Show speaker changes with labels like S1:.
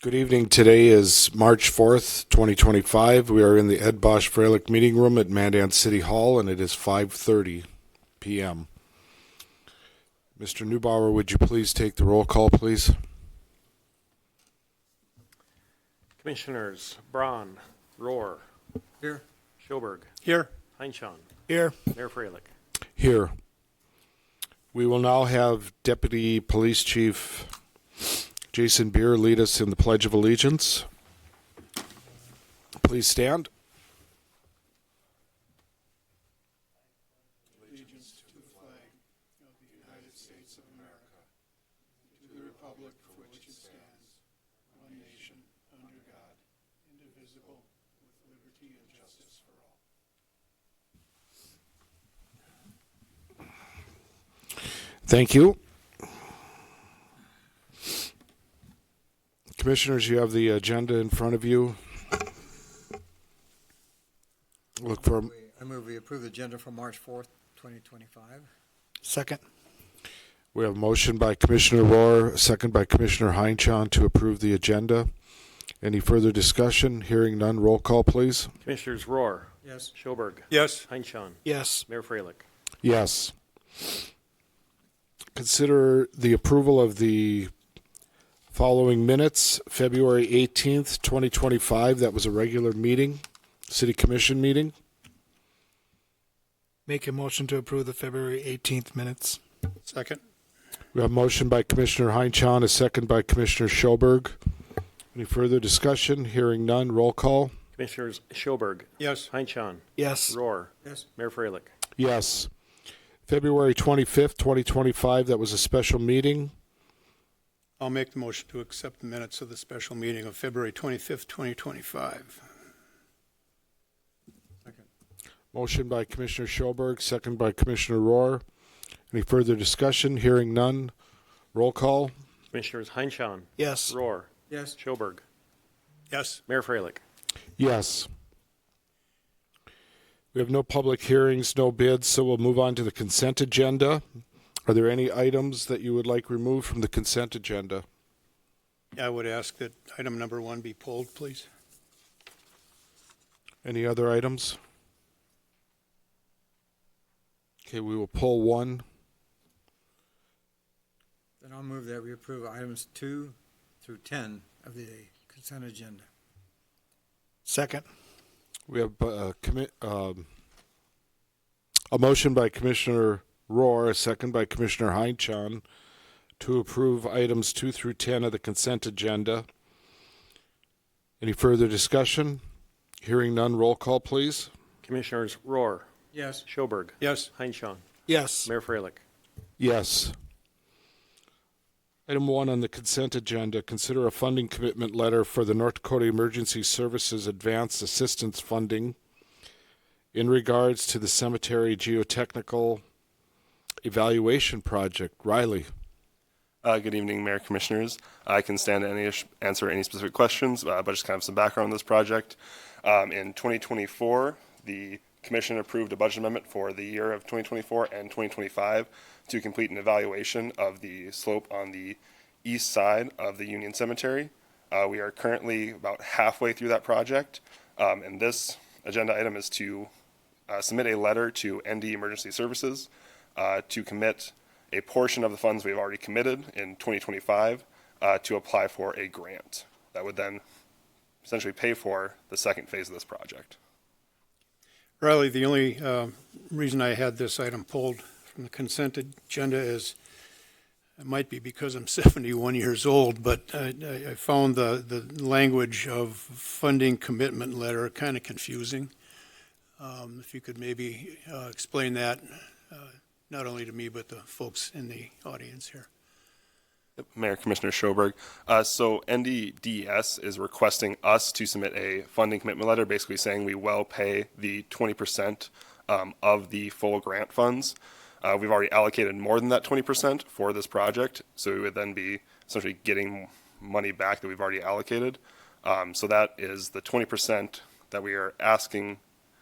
S1: Good evening. Today is March 4th, 2025. We are in the Ed Bosch Freilich Meeting Room at Mandan City Hall, and it is 5:30 p.m. Mr. Neubauer, would you please take the roll call, please?
S2: Commissioners Braun, Rohr. Here. Schoberg,
S3: Here.
S2: Heinchan,
S3: Here.
S2: Mayor Freilich.
S1: Here. We will now have Deputy Police Chief Jason Beer lead us in the Pledge of Allegiance. Please stand. Thank you. Commissioners, you have the agenda in front of you. Look for,
S4: I move we approve the agenda for March 4th, 2025.
S3: Second.
S1: we have a motion by Commissioner Roar, second by Commissioner Heinchan to approve the agenda. Any further discussion? Hearing none, roll call, please.
S2: Commissioners Rohr,
S4: Yes.
S2: Schoberg,
S3: Yes.
S2: Heinchan,
S3: Yes.
S2: Mayor Freilich.
S1: Yes. Consider the approval of the following minutes, February 18th, 2025. That was a regular meeting, city commission meeting.
S3: Make a motion to approve the February 18th minutes. Second.
S1: We have a motion by Commissioner Heinchan, a second by Commissioner Schoberg. Any further discussion? Hearing none, roll call.
S2: Commissioners Schoberg,
S3: Yes.
S2: Heinchan,
S3: Yes.
S2: Rohr,
S4: Yes.
S2: Mayor Freilich.
S1: Yes. February 25th, 2025, that was a special meeting.
S5: I'll make the motion to accept the minutes of the special meeting of February 25th, 2025.
S1: Motion by Commissioner Schoberg, second by Commissioner Rohr. Any further discussion? Hearing none, roll call.
S2: Commissioners Heinchan,
S3: Yes.
S2: Rohr,
S4: Yes.
S2: Schoberg,
S5: Yes,
S2: Mayor Freilich.
S1: Yes. We have no public hearings, no bids, so we'll move on to the consent agenda. Are there any items that you would like removed from the consent agenda?
S5: I would ask that item number one be pulled, please.
S1: Any other items? Okay, we will pull one.
S4: Then I'll move that we approve items 2 through 10 of the consent agenda.
S3: Second.
S1: We have uh, commi- um, a motion by Commissioner Rohr, a second by Commissioner Heinchan to approve items 2 through 10 of the consent agenda. Any further discussion? Hearing none, roll call, please.
S2: Commissioners Rohr,
S4: Yes.
S2: Schoberg,
S5: Yes,
S2: Heinchan,
S3: Yes.
S2: Mayor Freilich.
S1: Yes. Item 1 on the consent agenda consider a funding commitment letter for the North Dakota Emergency Services Advanced Assistance Funding in regards to the Cemetery Geotechnical Evaluation Project. Riley.
S6: Uh, good evening, Mayor Commissioners. I can stand to any answer any specific questions, uh, but just kind of some background on this project. Um, in 2024, the Commission approved a budget amendment for the year of 2024 and 2025 to complete an evaluation of the slope on the east side of the Union Cemetery. Uh, we are currently about halfway through that project, um, and this agenda item is to uh, submit a letter to ND Emergency Services uh, to commit a portion of the funds we've already committed in 2025 uh, to apply for a grant that would then essentially pay for the second phase of this project.
S5: Riley, the only uh, reason I had this item pulled from the consent agenda is, it might be because I'm 71 years old, but I I- I found the, the language of funding commitment letter kind of confusing. Um, If you could maybe uh, explain that, uh, not only to me, but the folks in the audience here.
S6: Mayor Commissioner Schoberg. Uh, so NDDS is requesting us to submit a funding commitment letter, basically saying we will pay the 20% um, of the full grant funds. Uh, we've already allocated more than that 20% for this project, so we would then be essentially getting money back that we've already allocated. Um, so that is the 20% that we are asking